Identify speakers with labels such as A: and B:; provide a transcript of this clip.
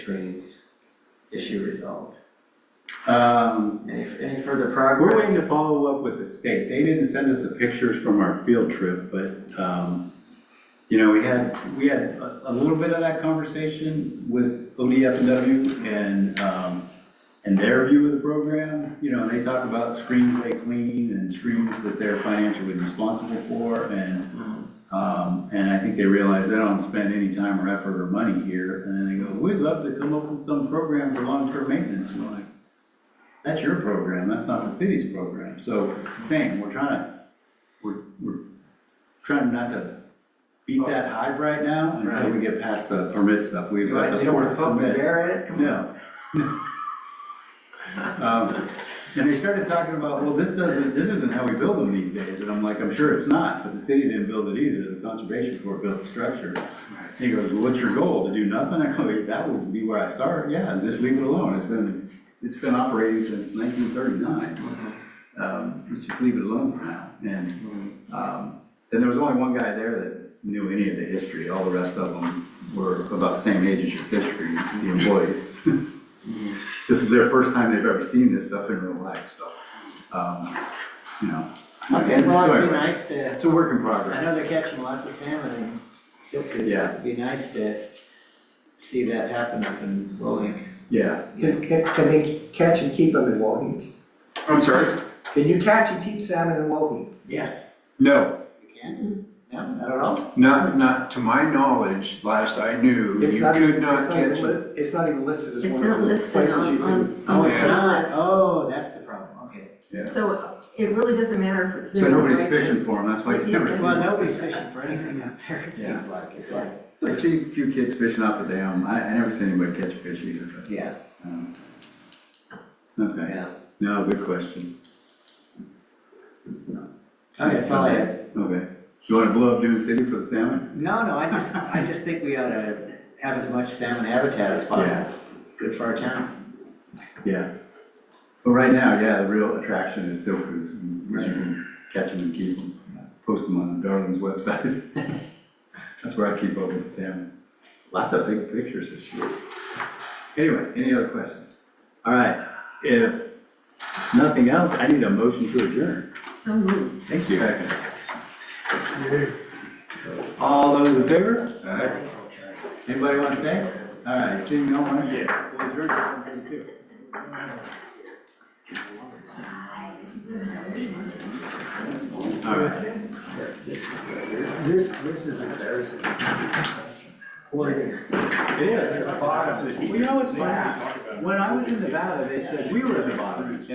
A: trades issue resolved.
B: Um,
A: Any, any further
B: we're
A: progress?
B: waiting to follow up with the state. They didn't send us the pictures from our field trip, but, um, you know, we had, we had a, a little bit of that conversation with ODFW and, um, and their view of the program. You know, they talk about screens they clean and screens that they're financially responsible for and
A: Hmm.
B: Um, and I think they realize they don't spend any time or effort or money here, and then they go, we'd love to come up with some program for long-term maintenance, and we're like, that's your program, that's not the city's program, so, same, we're trying to, we're, we're trying not to beat that hype right now until we get past the permit stuff, we've
A: You
B: got
A: want-
B: the
A: you don't wanna
B: fourth
A: poke the
B: permit.
A: bear at it? Come on.
B: No. Um, And they started talking about, well, this doesn't, this isn't how we build them these days, and I'm like, I'm sure it's not, but the city didn't build it either, the conservation corps built the structure. And He goes, well, what's your goal, to do nothing? I go, that would be where I start, yeah, just leave it alone, it's been, it's been operating since nineteen thirty-nine,
A: Mhm.
B: um, let's just leave it alone for now, and
A: Mhm.
B: um, And there was only one guy there that knew any of the history, all the rest of them were about the same age as your fishery, the employees. This is their first time they've ever seen this stuff in real life, so, um, you know.
A: Okay, well, it'd be
B: Anyway,
A: nice to,
B: It's a work in
A: I
B: progress.
A: know they're catching lots of salmon and silkies.
B: Yeah.
A: It'd be nice to see that happen up in Bowling.
B: Yeah.
C: Can, can- can they catch and keep them in Wauhee?
B: I'm sorry?
C: Can you catch and keep salmon in Wauhee?
A: Yes.
B: No,
A: You can? No, not at all?
D: Not, not, to my knowledge, last I knew,
C: It's
D: you
C: not-
D: could
C: it's
D: not catch
C: even
D: it.
C: li- It's not even listed as
E: It's
C: one
E: not
C: of the
E: listed
C: places you
E: on,
C: can.
E: on,
A: Oh,
E: on
A: it's
E: the
A: not,
E: list.
A: oh, that's the problem, okay.
E: So it really doesn't matter if it's there.
B: so nobody's
E: right?
B: fishing for them, that's why you
E: Yeah.
B: never see
A: Well,
B: them.
A: nobody's fishing for anything up there, it seems like, it's like,
B: I see a few kids fishing off the dam, I, I never see anybody catch a fish either, but,
A: yeah,
B: um, okay,
A: yeah.
B: no, good question,
A: Okay, that's all I had.
B: okay. You wanna blow up Dune City for the salmon?
A: No, no, I just, I just think we ought to have as much salmon habitat as possible.
B: Yeah.
A: It's Good for our town.
B: Yeah. But right now, yeah, the real attraction is silk crews, and we can catch them and keep them, post them on Darwin's website. That's where I keep up with the salmon. Lots of big pictures this year. Anyway, any other questions? All right, if nothing else, I need a motion to adjourn.
E: So moved.
B: Thank you. All those in favor? All right. Anybody want to say? All right, seeing no one? Yeah. We'll adjourn at 1:32. All right.
C: This, this is embarrassing.
B: It is. Well, you know, it's funny. When I was in Nevada, they said we were at the bottom.